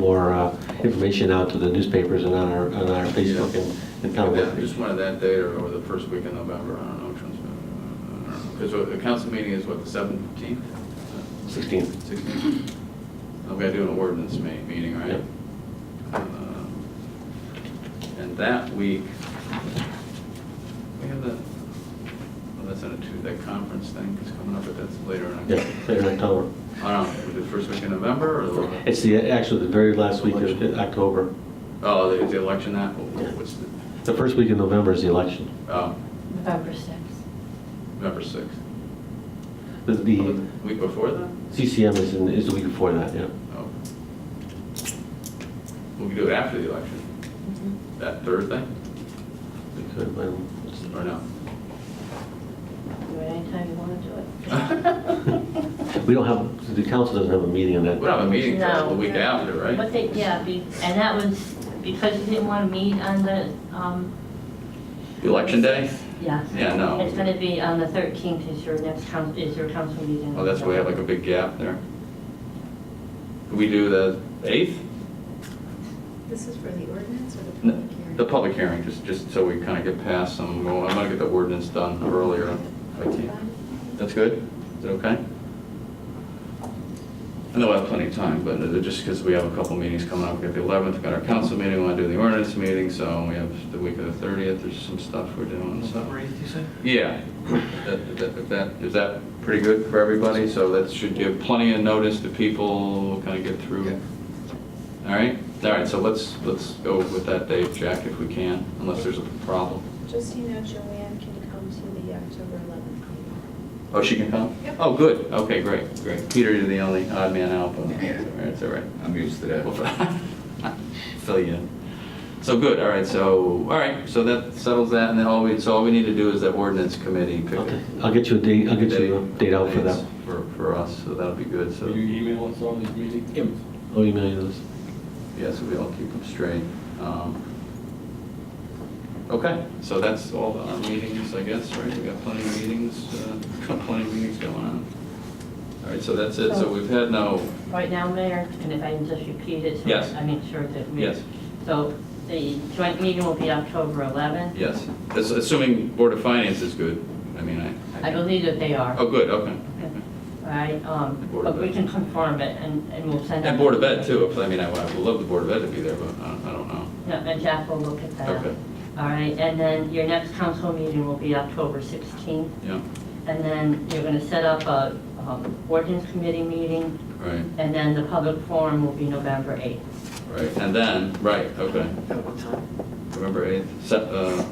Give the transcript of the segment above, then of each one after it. more uh, information out to the newspapers and on our, on our Facebook and- and kind Yeah, of. Just one of that day or, or the first week in November, I don't know which one's. Because the council meeting is what, the seventeenth? 16th. Sixteenth? I've got to do an ordinance ma- meeting, right? Um, And that week, we have the, well, that's on a Tuesday, that conference thing is coming up, but that's later in Yeah, October. later in October. I don't know, was it first week in November or? the- It's the, actually, the very last week of October. Oh, the, the election that, Yeah. what's the, The first week in November is the election. oh, November 6th. November sixth. The- Oh, The the Week before that? CCM is, in- is the week before that, yeah. Oh. We could do it after the election, Mm-hmm. that Thursday, We could, um, or no? Do it anytime you want to do We it. don't We don't have, the council doesn't have a meeting on that. have a meeting till the No. week after, But right? they, yeah, be- and that was because you didn't want to meet on the, um. Election day? Yeah. Yeah, no. It's going to be on the 13th is your next council, is your council meeting. Oh, that's why we have like a big gap there. Could we do the eighth? This is for the ordinance or the No, public hearing? The public hearing, just, just so we kind of get past some, well, I'm gonna get the ordinance done earlier. if I can. That's good? Is it okay? I know I have plenty of time, but uh, just because we have a couple meetings coming up, we got the 11th, we got our council meeting, we want to do the ordinance meeting, so we have the week of the 30th, there's some stuff we're doing, so. you say? Yeah, That- that- that- is that pretty good for everybody? So that should give plenty of notice to people, kind of get through. All right, all right, so let's, let's go with that date, Jack, if we can, unless there's a problem. Just so you know, Joanne can come to the October 11th meeting. Oh, she can come? Yep. Oh, good, okay, great, great. Peter, you're the only odd man out, but it's all right. I'm used to We'll that. fi- Fill you in. So, good, all right, so, all right, so that settles that, and then all we, so all we need to do is that ordinance committee pick Okay. a I'll get you a date, I'll get you a date- date out for dates that. For, for us, so that'll be good, so, Will yes, you email us all these meetings? I'll email Oh, you those. so we all keep them straight. Um, Okay, so that's all our meetings, I guess, right? We got plenty of meetings, uh, plenty of meetings going on. All right, so that's it, so we've had no, Right now, Mayor, and if I can just repeat it. so Yes. I make sure that we. Yes. So the joint meeting will be October 11th. yes, As- assuming Board of Finance is good, I mean, I. I believe that they are. Oh, good, okay. All right, um, Board of but we Ed. can confirm it and, and we'll send. And out- Board of Ed too, if- I mean, I would love the Board of Ed to be there, but I don't- I don't know. Yeah, and Jack will look at that. Okay. All right, and then your next council meeting will be October 16th. Yeah, And then you're going to set up a um, ordinance committee meeting, right, and then the public forum will be November 8th. right. And then, right, okay. November 8th, set, uh,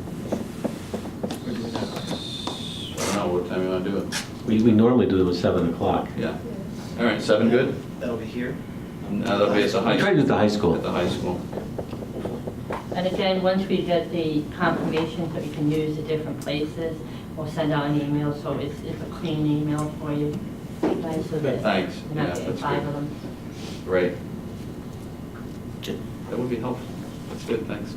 I don't know, what time you want to do it? We, we normally do them at 7 o'clock. Yeah, all right, seven, good? That'll be here. No, That'll be at the high. We tried it at the high school. At the high school. And again, once we get the confirmations that we can use the different places, we'll send out an email, so it's, it's a clean email for you. right, so that Thanks. You're Yeah, not getting that's five good. of them. Right. That would be helpful. That's good, thanks.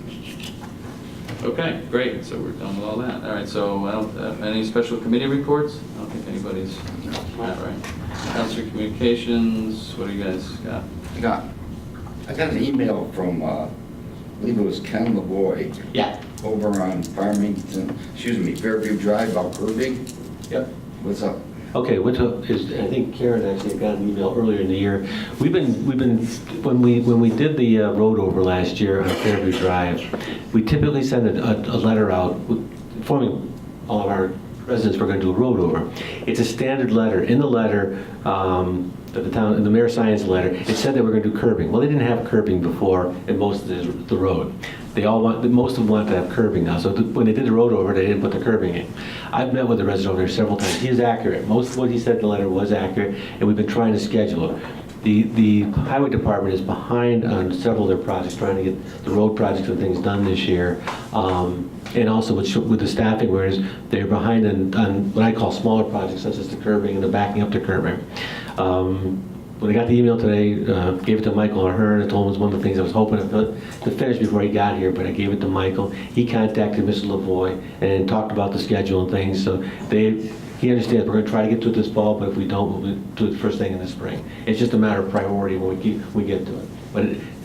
Okay, great, so we're done with all that. All right, so I don't- uh, any special committee reports? I don't think anybody's, not right. Council Communications, what do you guys got? I got, I got an email from, uh, I believe it was Ken LaVoy Yeah. over on Farmington, excuse me, Fairview Drive, Alberta. Yep. What's up? Okay, what to- is, I think Karen actually got an email earlier in the year. We've been, we've been, when we, when we did the uh, road over last year on Fairview Drive, we typically send a, a a letter out informing all of our residents we're gonna do a road over. It's a standard letter. In the letter, um, that the town, in the mayor signs the letter, it said they were gonna do curbing. Well, they didn't have curbing before in most of the, the road. They all want, most of them want to have curbing now, so th- when they did the road over, they didn't put the curbing in. I've met with the resident over there several times, he is accurate, most of what he said in the letter was accurate, and we've been trying to schedule it. The, the highway department is behind on several of their projects, trying to get the road projects and things done this year. Um, And also with, with the staffing, whereas they're behind on, on what I call smaller projects, such as the curbing and the backing up to curbing. Um, when I got the email today, uh, gave it to Michael and her, and I told him it was one of the things I was hoping to to finish before he got here, but I gave it to Michael. He contacted Mrs. Lavoy and talked about the schedule and things, so they, he understands, we're gonna try to get to it this fall, but if we don't, we'll do it first thing in the spring. It's just a matter of priority when we get, we get to it. But it-